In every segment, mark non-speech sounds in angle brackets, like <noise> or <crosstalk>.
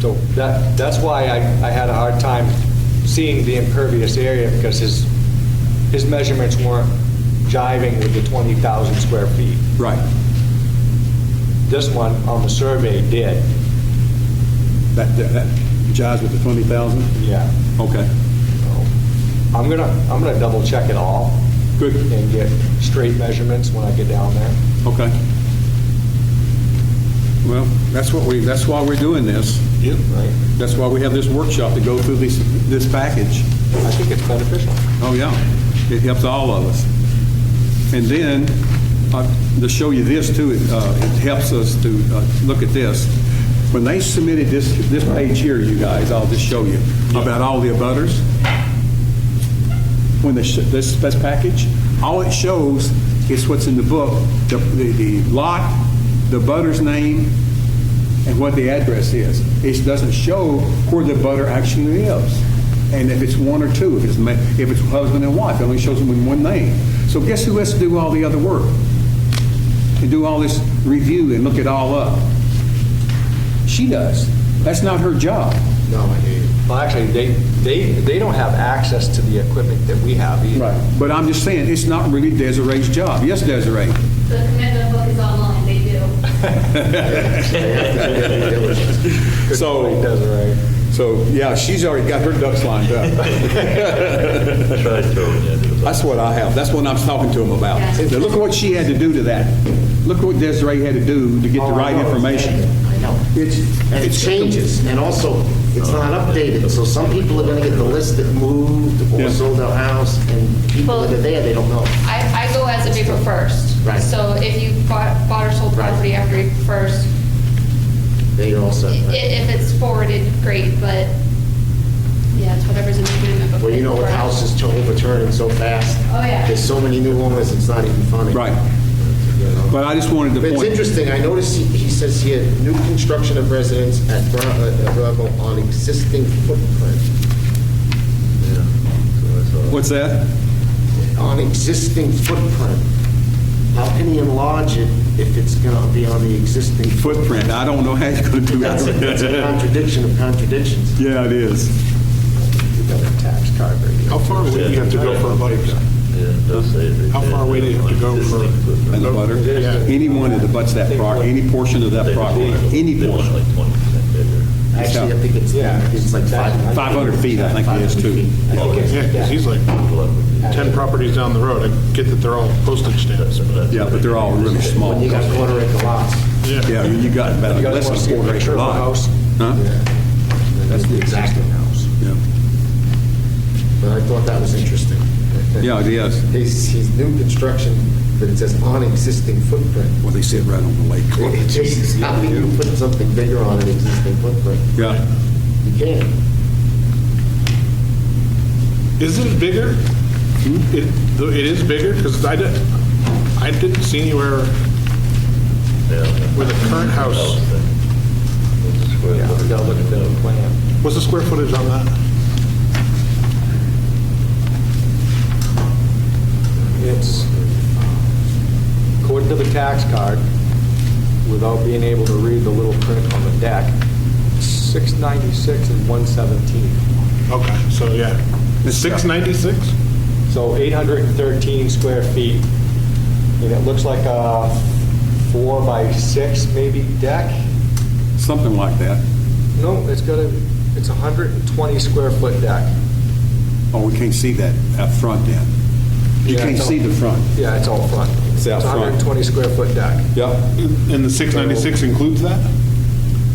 So that, that's why I, I had a hard time seeing the impervious area, because his, his measurements weren't jiving with the 20,000 square feet. Right. This one on the survey did, That, that- that jives with the 20,000? yeah. Okay. I'm gonna, I'm gonna double check it all. Good. And get straight measurements when I get down there. Okay. Well, that's what we, that's why we're doing this. Yep. Right? That's why we have this workshop to go through this, this package. I think it's beneficial. Oh, yeah. It helps all of us. And then, uh, to show you this too, uh, it helps us to uh, look at this. When they submitted this, this page here, you guys, I'll just show you, about all the abutters, when they, sh- this, this package, all it shows is what's in the book, the, the the lot, the butter's name, and what the address is. It doesn't show where the butter actually lives, and if it's one or two, if it's, ma- if it's husband and wife, it only shows them in one name. So guess who has to do all the other work? And do all this review and look it all up? She does. That's not her job. No, I hear you. Well, actually, they, they, they don't have access to the equipment that we have either. <laughs> But I'm just saying, it's not really Desiree's job. Yes, Desiree? The commitment book is online, they do. <laughs> Good point, Desiree. <laughs> So, yeah, she's already got her ducks lined up. <laughs> Try to throw it in. That's what I have. That's what I'm talking to him about. Now, look at what she had to do to that. Look what Desiree had to do to get the Oh, I right know. information. I know. It's, And it changes, and also, it's not updated, so some people are gonna get the list that moved Yeah. or sold their house, and people that are there, they don't know. I, I go as of April 1st. Right. So if you bought, bought or sold Right. property after April 1st, They also, i- i- if it's forwarded, great, but yeah, it's whatever's in the agreement. book well, you know, with paperwork. houses to overturning so fast. Oh, yeah. There's so many new owners, it's not even funny. Right. You know? But I just wanted to But it's point- interesting, I noticed he he says here, new construction of residence at Bur- uh, uh, Bravo on existing footprint, Yeah. So that's all. what's that? on existing footprint. How can he enlarge it if it's gonna be on the <laughs> existing footprint? Footprint. I don't know how you're going to do That's a that's <laughs> a that. contradiction of contradictions. Yeah, it is. We've got a tax card right here. How far away do you have to go for a buddy? Yeah, it does say it right How far there. away do you have to go for- And the butter. Anyone that abuts that property, any portion of that property, any They want portion. like 20% bigger. Actually, I think it's, Yeah. it's like five. 500 feet, I think it is, too. I think it's- Yeah, because he's like 10 properties down the road. I get that they're all postage stamps. but- Yeah, but they're all really small. When you got quarter acre lots. Yeah, you got about You guys less wanna see a than a Uh, quarter picture acre of the lot. house? Huh? That's the exact house. Yeah. But I thought that was interesting. Yeah, it is. <laughs> He's, he's new construction, but it says on existing footprint. Well, they sit right on the Oh, lake. It just is how can you put something bigger on an existing footprint? Yeah. You can't. Isn't it bigger? It though it is bigger, because I didn't, I didn't see anywhere where the current house, Yeah, we gotta look at the plan. what's the square footage on that? It's, uh, according to the tax card, without being able to read the little print on the deck, 696 and 117. Okay, so yeah. It's- 696? Uh-huh. So 813 square feet, and it looks like a four by six maybe deck. Something like that. No, it's got a, it's a 120 square foot deck. Oh, we can't see that up front then. You Yeah, can't it's all- see the front. Yeah, it's all front. It's out front. It's a 120 square foot deck. Yep. And the 696 includes that?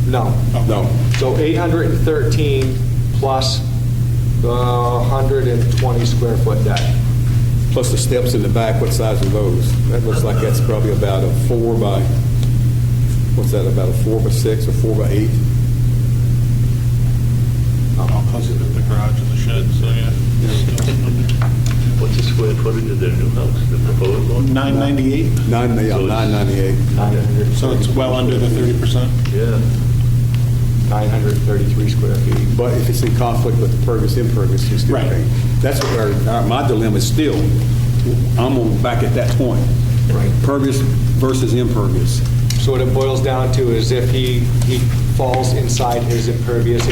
No. No. So 813 plus the 120 square foot deck. Plus the steps in the back, what size are those? That looks like that's probably about a four by, what's that, about a four by six or four by eight? I'll close it at the garage and the shed, so yeah. What's the square footage of their new house, the proposed one? 998, Nine, yeah, So it's- nine ninety-eight. so it's well under the 30%. Yeah. 933 square feet. But if it's in conflict with the pervious impervious, it's still Right. okay. That's what our, our- my dilemma is still, I'm on back at that point. Right. Pervious versus impervious. So what it boils down to is if he, he falls inside his impervious